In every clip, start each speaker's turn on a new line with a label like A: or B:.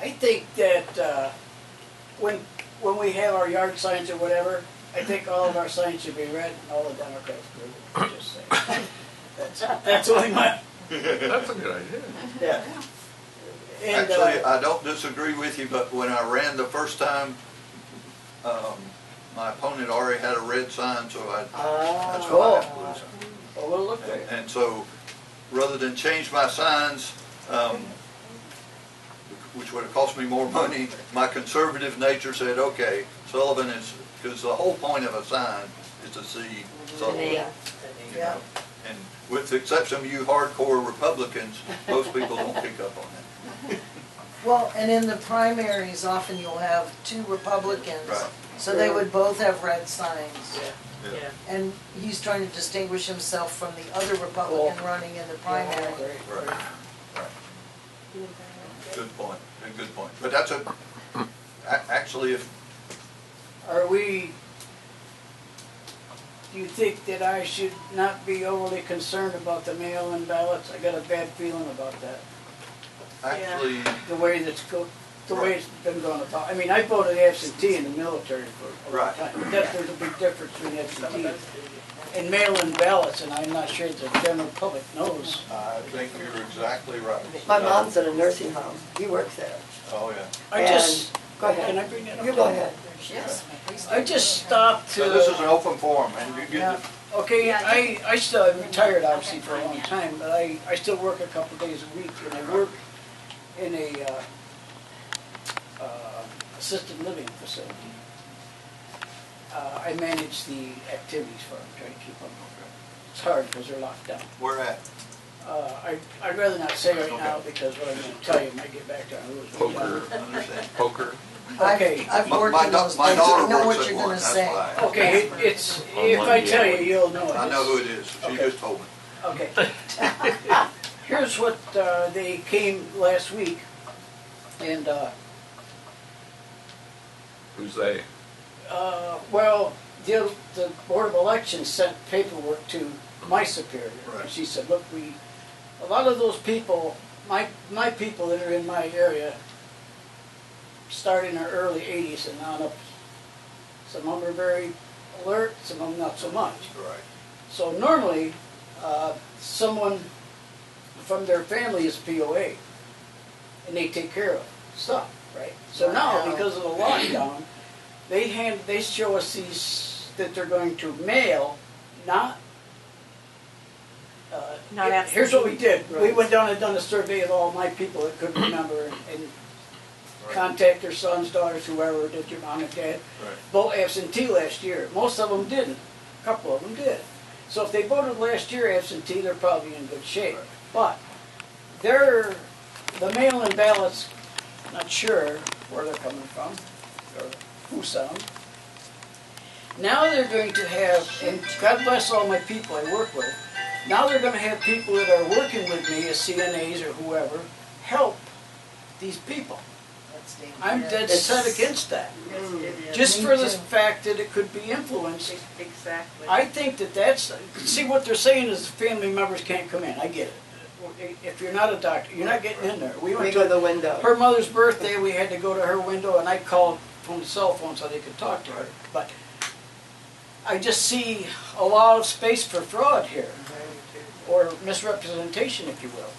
A: I think that uh, when when we have our yard signs or whatever, I think all of our signs should be red and all the Democrats blue. I'm Just saying. That's, that's only my,
B: That's a good idea.
A: yeah. And,
C: Actually,
A: uh,
C: I don't disagree with you, but when I ran the first time, um, my opponent already had a red sign, so I, that's
A: Oh.
C: why I had blue sign.
A: ah, well, we'll look
C: And-
A: there.
C: And so, rather than change my signs, um, which would have cost me more money, my conservative nature said, okay, Sullivan is, because the whole point of a sign is to see Sullivan.
D: Yeah.
C: you know. And with the exception of you hardcore Republicans, most people don't pick up on that.
E: Well, and in the primaries, often you'll have two Republicans.
C: Right.
E: So they would both have red signs.
A: Yeah.
D: Yeah.
E: And he's trying to distinguish himself from the other Republican running in the
A: Yeah,
E: primary.
A: great,
C: Right,
A: great.
C: right. Good point, a good point. But that's a, a- actually, if,
A: Are we, do you think that I should not be overly concerned about the mail-in ballots? I got a bad feeling about that,
C: actually,
A: the way that's go, the way it's been going about. I mean, I voted absentee in the military for a long
C: Right.
A: time. That, there's a big difference between absentee and mail-in ballots, and I'm not sure the general public knows.
C: I think you're exactly right. Uh,
F: My mom's in a nursing home. He works there.
C: Oh, yeah.
A: I just,
F: Go
A: can
F: ahead.
A: I bring that up?
F: You go ahead.
E: Yes.
A: I just stopped to.
C: So this is an open forum, and you
A: Yeah,
C: get
A: okay,
G: Yeah,
A: I, I still, I'm retired obviously
G: Okay,
A: for a long
G: yeah.
A: time, but I, I still work a couple days a week, and I work in a, uh, uh, assisted living facility. Uh, I manage the activities for them, try to keep them, it's hard because they're locked down.
C: the, where at?
A: Uh, I, I'd rather not say right now,
C: Okay.
A: because what I'm gonna tell you might get back to our rules.
B: Poker,
C: Understand.
B: poker.
A: Okay.
E: I've, I've
C: My-
E: worked
C: my
E: in
C: da-
E: those
C: my
E: things, I
C: daughter
E: know
C: works at
E: what you're
C: one,
E: gonna
C: that's
E: say.
C: why I-
A: Okay, it- it's,
B: On
A: if I
B: Monday,
A: tell you,
B: anyway.
A: you'll know it.
C: I know who it is, she
A: Okay.
C: just told me.
A: Okay. Here's what, uh, they came last week, and, uh,
B: Who's they?
A: uh, well, the, the Board of Elections sent paperwork to my superior.
C: Right.
A: She said, look, we, a lot of those people, my, my people that are in my area, started in the early eighties and on up, some of them are very alert, some of them not so much.
C: Right.
A: So normally, uh, someone from their family is POA, and they take care of stuff, right? So now,
E: Wow.
A: because of the lockdown, they hand, they show us these, that they're going to mail, not, uh,
D: Not
A: here- here's what we did, we
F: Right.
A: went down and done a survey of all my people that couldn't remember, and contact their sons, daughters, whoever, did your mom and dad,
C: Right.
A: vote absentee last year. Most of them didn't. A couple of them did. So if they voted last year absentee, they're probably in good shape. But they're, the mail-in ballots, not sure where they're coming from or who some. Now they're going to have, and God bless all my people I work with, now they're gonna have people that are working with me as CNAs or whoever, help these people.
E: That's dangerous.
A: I'm dead
F: It's-
A: set against that.
D: Yes, it is.
A: Just for the
E: Yeah.
A: fact that it could be influenced.
D: Exactly.
A: I think that that's, see, what they're saying is family members can't come in, I get it. If you're not a doctor, you're not getting in there. We
F: We
A: went
F: go to
A: to,
F: the window.
A: her mother's birthday, we had to go to her window and I called from the cell phone so they could talk to her. But I just see a lot of space for fraud here, or misrepresentation, if you will.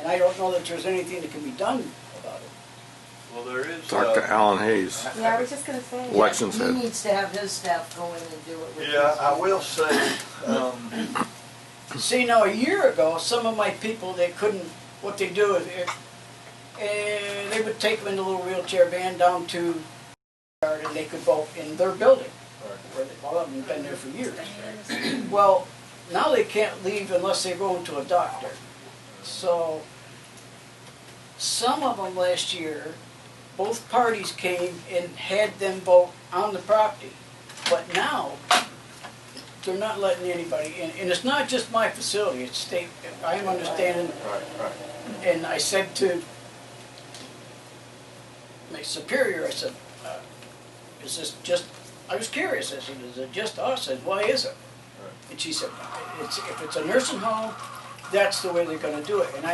A: And I don't know that there's anything that can be done about it.
C: Well, there is,
H: Talk to
C: uh,
H: Alan Hayes,
G: Yeah, I was just gonna say.
H: elections
E: He
H: head.
E: needs to have his staff go in and do it with his.
C: yeah, I will say, um,
A: See, now a year ago, some of my people they couldn't. What they do is, if, eh, they would take them in a little wheelchair van down to, yard and they could vote in their building, where they, all of them have been there for years. Well, now they can't leave unless they go to a doctor. So, some of them last year, both parties came and had them vote on the property, but now they're not letting anybody in, and it's not just my facility, it's state, I'm understanding,
C: right, right.
A: and I said to my superior, I said, uh, is this just, I was curious, I said, is it just us, and why is it?
C: Right.
A: And she said, it's, if it's a nursing home, that's the way they're gonna do it, and I